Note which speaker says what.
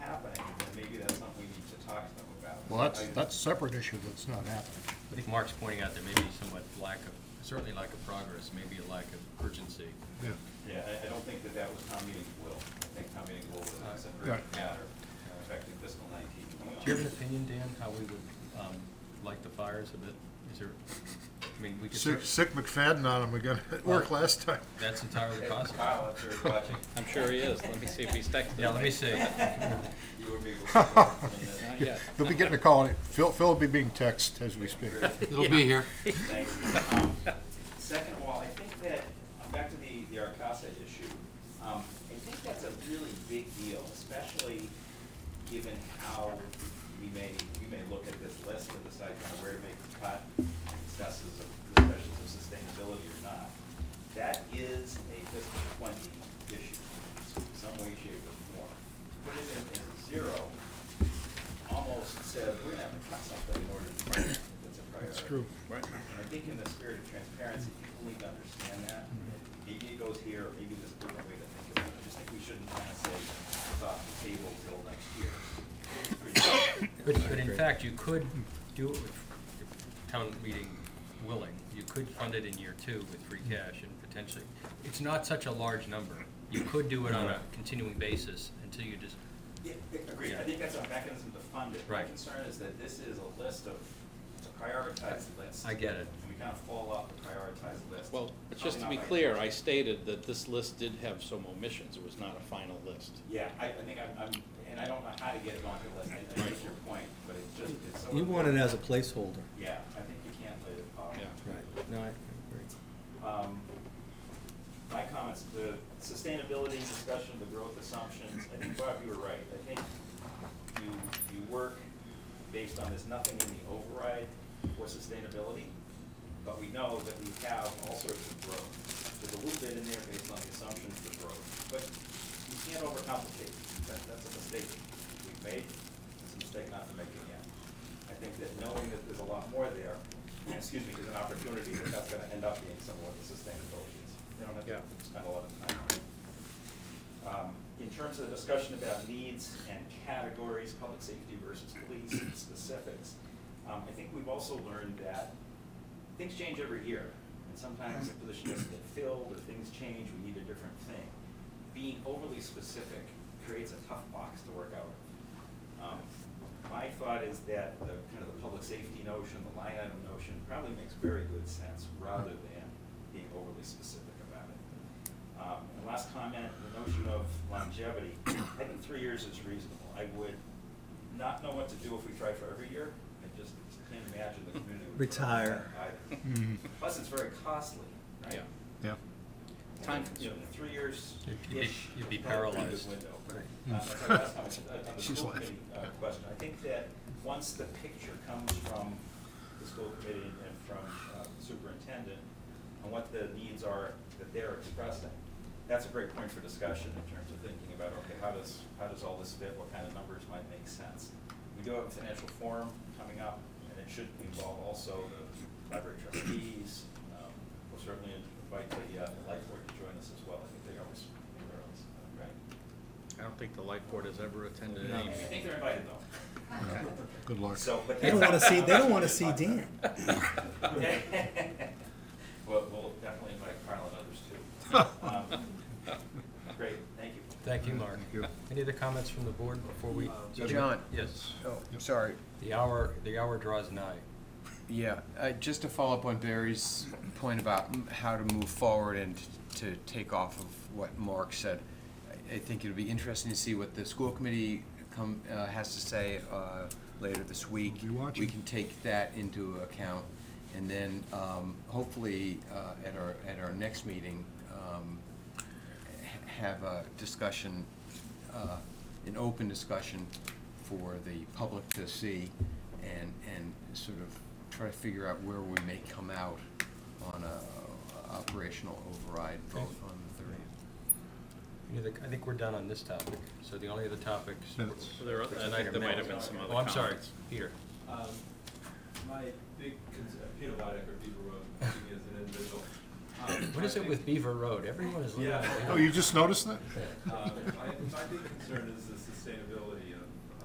Speaker 1: Well, that's, that's a separate issue that's not happening.
Speaker 2: I think Mark's pointing out there may be somewhat lack of, certainly lack of progress, maybe a lack of urgency.
Speaker 1: Yeah.
Speaker 3: Yeah, I, I don't think that that was town meeting will. I think town meeting will was a separate
Speaker 1: Right.
Speaker 3: matter uh, affecting fiscal nineteen.
Speaker 2: Do you have an opinion, Dan, how we would um, light the fires a bit? Is there, I mean, we could,
Speaker 1: Sick,
Speaker 2: cer-
Speaker 1: sick McFadden on him again, it worked last time.
Speaker 2: that's entirely possible.
Speaker 3: Kyle, if you're watching,
Speaker 4: I'm sure he is. Let me see if he's texting.
Speaker 2: Yeah, let me see.
Speaker 3: you would be. Thank
Speaker 4: Not yet.
Speaker 1: They'll be getting a call, and Phil, Phil will be being texted as we speak.
Speaker 5: It'll be here.
Speaker 3: you. Um, Second of all, I think that, um, back to the, the Arcasa issue, um, I think that's a really big deal, especially given how we may, we may look at this list and decide kind of where to make the cut, discusses of, discussions of sustainability or not. That is a fiscal twenty issue, in some way, shape, or form. Put it in, in zero, almost said, we're gonna have to cut something in order to, that's a priority.
Speaker 1: That's true.
Speaker 3: And I think in the spirit of transparency, people need to understand that. Maybe it goes here, or maybe there's a different way to think about it. I just think we shouldn't kind of say, it's off the table till next year.
Speaker 2: But, but in fact, you could do it with if town meeting willing. You could fund it in year two with free
Speaker 1: Mm-hmm.
Speaker 2: cash and potentially, it's not such a large number. You could do it on a continuing basis until you just,
Speaker 3: Yeah, agreed. I think that's a mechanism to fund it.
Speaker 2: Right.
Speaker 3: My concern is that this is a list of, it's a prioritized list.
Speaker 2: I get it.
Speaker 3: And we kind of fall off the prioritized list.
Speaker 4: Well, but just to
Speaker 3: Probably
Speaker 4: be
Speaker 3: not by-
Speaker 4: clear, I stated that this list did have some omissions. It was not a final list.
Speaker 3: Yeah, I, I think I'm, I'm, and I don't know how to get it onto the list. I I get your point, but it's just, it's so.
Speaker 6: You want it as a placeholder.
Speaker 3: Yeah, I think you can't let it off.
Speaker 4: Yeah.
Speaker 6: Right, no, I agree.
Speaker 3: Um, My comments, the sustainability discussion, the growth assumptions, I think Bob, you were right. I think you, you work based on there's nothing in the override for sustainability, but we know that we have all sorts of growth. There's a little bit in there based on the assumptions for growth, but you can't overcomplicate. That, that's a mistake we've made. It's a mistake not to make again. I think that knowing that there's a lot more there, and excuse me, there's an opportunity that that's gonna end up being somewhat the sustainability is. They don't have
Speaker 4: Yeah.
Speaker 3: to spend a lot of time on it. Um, In terms of the discussion about needs and categories, public safety versus police and specifics, um, I think we've also learned that things change every year. And sometimes the position doesn't get filled, or things change, we need a different thing. Being overly specific creates a tough box to work out. Um, My thought is that the, kind of the public safety notion, the line item notion, probably makes very good sense rather than being overly specific about it. Um, And last comment, the notion of longevity, I think three years is reasonable. I would not know what to do if we tried for every year. I just can't imagine the community would.
Speaker 6: Retire.
Speaker 3: either.
Speaker 1: Mhm.
Speaker 3: Plus, it's very costly, right?
Speaker 4: Yeah.
Speaker 1: Yeah.
Speaker 4: Time
Speaker 3: You know,
Speaker 4: consuming.
Speaker 3: Three years.
Speaker 2: You'd be- you'd be paralyzed.
Speaker 1: She's
Speaker 3: She's
Speaker 1: laughing.
Speaker 3: uh, Question, I think that once the picture comes from the school committee and from uh, the superintendent on what the needs are that they're expressing, that's a great point for discussion in terms of thinking about, okay, how does, how does all this fit? What kind of numbers might make sense? We do have a financial forum coming up, and it should involve also the library trustees. Um, We'll certainly invite the, uh, the life board to join us as well. I think they always, they're always, uh, right?
Speaker 4: I don't think the life board has ever attended
Speaker 3: I
Speaker 4: any
Speaker 3: mean, I
Speaker 4: meeting.
Speaker 3: think they're invited though.
Speaker 1: Good luck.
Speaker 3: So, but.
Speaker 6: They don't wanna see, they don't wanna see Dan.
Speaker 3: Well, we'll definitely invite Carl and others too. Um, Great, thank you.
Speaker 2: thank you, Mark. Any other comments from the board before
Speaker 4: Uh,
Speaker 2: we?
Speaker 7: John.
Speaker 2: Yes.
Speaker 7: Oh, sorry.
Speaker 2: The hour, the hour draws nigh.
Speaker 7: Yeah, uh, just to follow up on Barry's point about m- how to move forward and to take off of what Mark said. I- I think it'll be interesting to see what the school committee come, uh, has to say, uh, later this week.
Speaker 1: We'll be watching.
Speaker 7: We can take that into account. And then, um, hopefully, uh, at our, at our next meeting, um, h- have a discussion, uh, an open discussion for the public to see and, and sort of try to figure out where we may come out on a operational override vote on the thirtieth.
Speaker 2: Any other- I think we're done on this topic, so the only other topics.
Speaker 1: Minutes.
Speaker 4: So there, and I- there might have been some other
Speaker 2: Oh, I'm
Speaker 4: comments.
Speaker 2: sorry, Peter.
Speaker 8: Um, My big concern, Peter Lydic or Beaver Road, speaking as an individual. Um,
Speaker 2: What is
Speaker 8: my
Speaker 2: it
Speaker 8: big-
Speaker 2: with Beaver Road? Everyone is looking
Speaker 6: Oh,
Speaker 8: Yeah. Uh,
Speaker 2: at Beaver.
Speaker 1: Oh, you just noticed
Speaker 8: um,
Speaker 1: that?
Speaker 8: My my big concern is the sustainability of